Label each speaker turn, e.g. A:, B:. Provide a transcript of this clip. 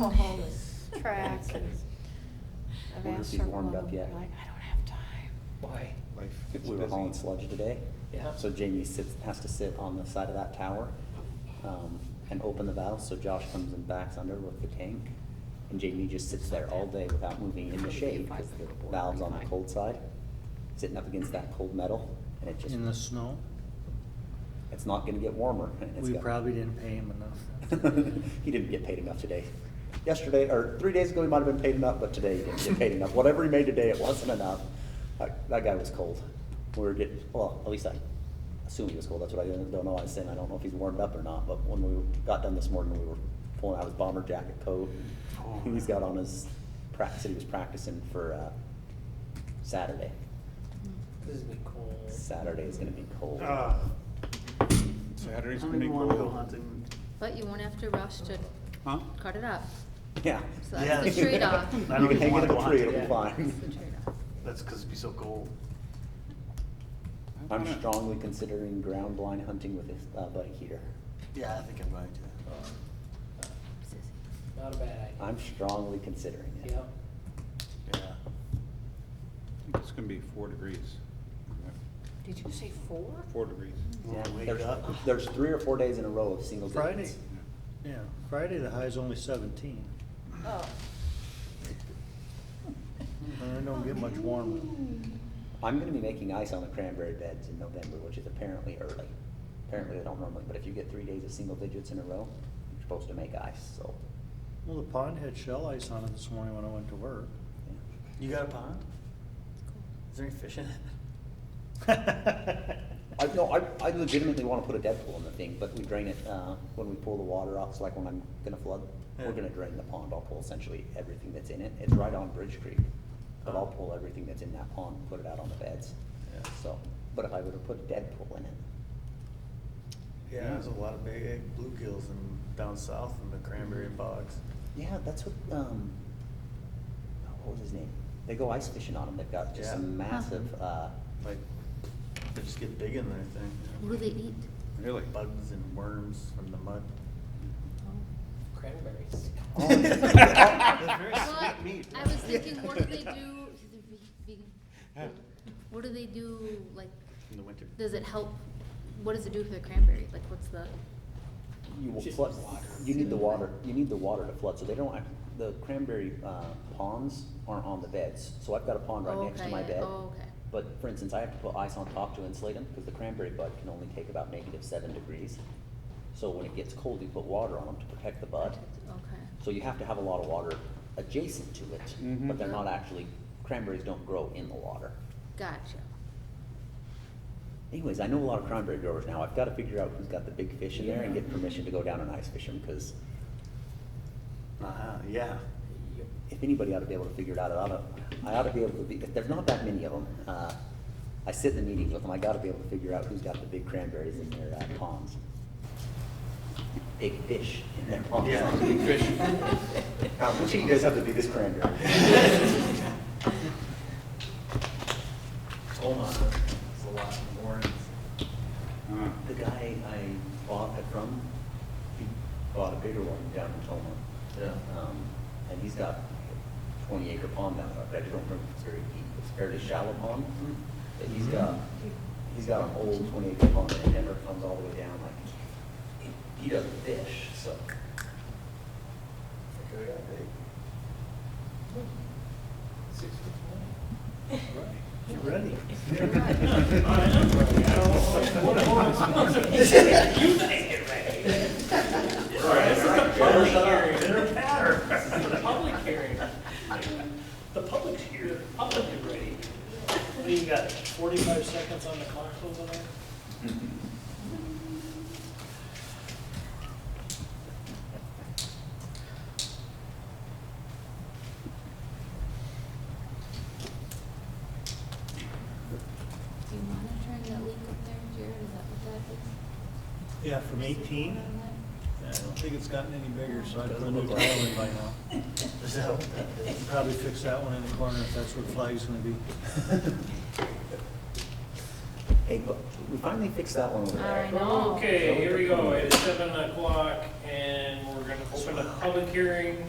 A: all this track and I've
B: Wonder if
A: asked
B: he's
A: several
B: warmed
A: of
B: up
A: them,
B: yet.
A: they're like, I don't have time.
C: Why?
D: Life gets
B: We were
D: busy.
B: hauling sludge today.
C: Yeah.
B: So Jamie sits, has to sit on the side of that tower, um, and open the valve, so Josh comes and backs under with the tank. And Jamie just sits there all day without moving in the shade, because the valve's on the cold side, sitting up against that cold metal, and it just,
E: In the snow,
B: it's not gonna get warmer. and it's
E: we
B: got-
E: probably didn't pay him enough.
B: He didn't get paid enough today. Yesterday, or three days ago, he might have been paid enough, but today he didn't get paid enough. Whatever he made today, it wasn't enough. That, that guy was cold. We were getting, well, at least I assume he was cold. That's what I don't don't know. I was saying, I don't know if he's warmed up or not, but when we got done this morning, we were pulling out his bomber jacket coat.
F: Oh,
B: He's got on his practice, that he was practicing for, uh, Saturday.
C: This is gonna be cold.
B: Saturday is gonna be cold.
D: Ah. Saturday's
F: I
D: gonna
F: don't
D: be
F: even wanna go
D: cold.
F: hunting.
G: But you won't have to rush to
F: Huh?
G: cut it up.
B: Yeah.
G: So that's the trade-off.
B: You
F: I don't
B: can
F: even
B: hang it
F: wanna
B: in
F: go
B: the tree,
F: hunting.
B: it'll be fine.
G: That's the trade-off.
F: That's because it'd be so cold.
D: I
B: I'm
D: wanna-
B: strongly considering ground blind hunting with his uh, buddy Heater.
F: Yeah, I think I'm right, yeah.
C: Not a bad idea.
B: I'm strongly considering it.
C: Yep.
F: Yeah.
D: I think It's gonna be four degrees.
A: Did you say four?
D: Four degrees.
F: Wanna wake
B: There's,
F: up?
B: there's three or four days in a row of single
E: Friday,
B: digits.
E: yeah, Friday the high's only seventeen,
A: Oh.
E: and it don't get much warmer.
B: I'm gonna be making ice on the cranberry beds in November, which is apparently early. Apparently they don't normally, but if you get three days of single digits in a row, you're supposed to make ice, so.
E: Well, the pond had shell ice on it this morning when I went to work.
B: yeah.
F: You got a pond? Is there any fish in it?
B: I, no, I, I legitimately wanna put a Deadpool in the thing, but we drain it, uh, when we pull the water off, so like when I'm gonna flood, we're
F: Yeah.
B: gonna drain the pond, I'll pull essentially everything that's in it, it's right on Bridge Creek. But I'll
F: Oh.
B: pull everything that's in that pond, and put it out on the beds,
F: Yeah.
B: so, but if I would've put a Deadpool in it,
F: Yeah, there's a lot of big egg bluegills in, down south in the cranberry bogs.
B: yeah, that's what, um, oh, what was his name? They go ice fishing on them, they've got just
F: Yeah.
B: some massive, uh,
F: Like, they just get big in there, I think.
G: What do they eat?
D: Really?
F: Bugs and worms from the mud.
C: Cranberries.
G: Well, I was thinking, what do they do, vegan? What do they do, like,
F: In the winter.
G: does it help, what does it do for the cranberry? Like, what's the,
B: you will
C: Just
B: flood,
C: water.
B: you need the water, you need the water to flood, so they don't, act- the cranberry, uh, ponds aren't on the beds, so I've got a pond right
G: Oh,
B: next to
G: okay,
B: my
G: yeah.
B: bed.
G: Oh, okay.
B: But for instance, I have to put ice on top to insulate them, because the cranberry bud can only take about negative seven degrees. So when it gets cold, you put water on them to protect the bud.
G: okay.
B: So you have to have a lot of water adjacent to it,
D: Mhm.
C: Mm-hmm.
B: but they're not actually, cranberries don't grow in the water.
G: Gotcha.
B: Anyways, I know a lot of cranberry growers now. I've got to figure out who's got the big fish in there and get permission to go down and ice fish them because
F: Uh-huh, yeah.
C: Yep.
B: if anybody ought to be able to figure it out, I ought to, I ought to be able to be, if there's not that many of them, uh, I sit in the meetings with them, I got to be able to figure out who's got the big cranberries in their uh, ponds. Big fish in their ponds.
F: Yeah, big fish.
B: How much do you guys have the biggest cranberry?
F: Oh my, there's a lot of worms.
D: Huh.
B: The guy I bought it from, he bought a bigger one down in Toma.
F: Yeah.
B: Um, and he's got a twenty acre pond down there, I don't remember if it's very deep, it's a fairly shallow pond. But he's got, he's got an old twenty acre pond that never comes all the way down, like, he- he doesn't fish, so.
C: Six fifty-one.
E: Get ready.
C: The public hearing. The public's here, the public is ready. What do you got, forty-five seconds on the clock over there?
G: Do you monitoring that leak up there, Jared, is that what that is?
E: Yeah, from eighteen, I don't think it's gotten any bigger, so I'd put a new tile in by now.
F: So,
E: Probably fix that one in the corner if that's where flag's gonna be.
B: Hey, but we finally fixed that one over there.
G: I know.
H: Okay, here we go, it's seven o'clock, and we're gonna open a public hearing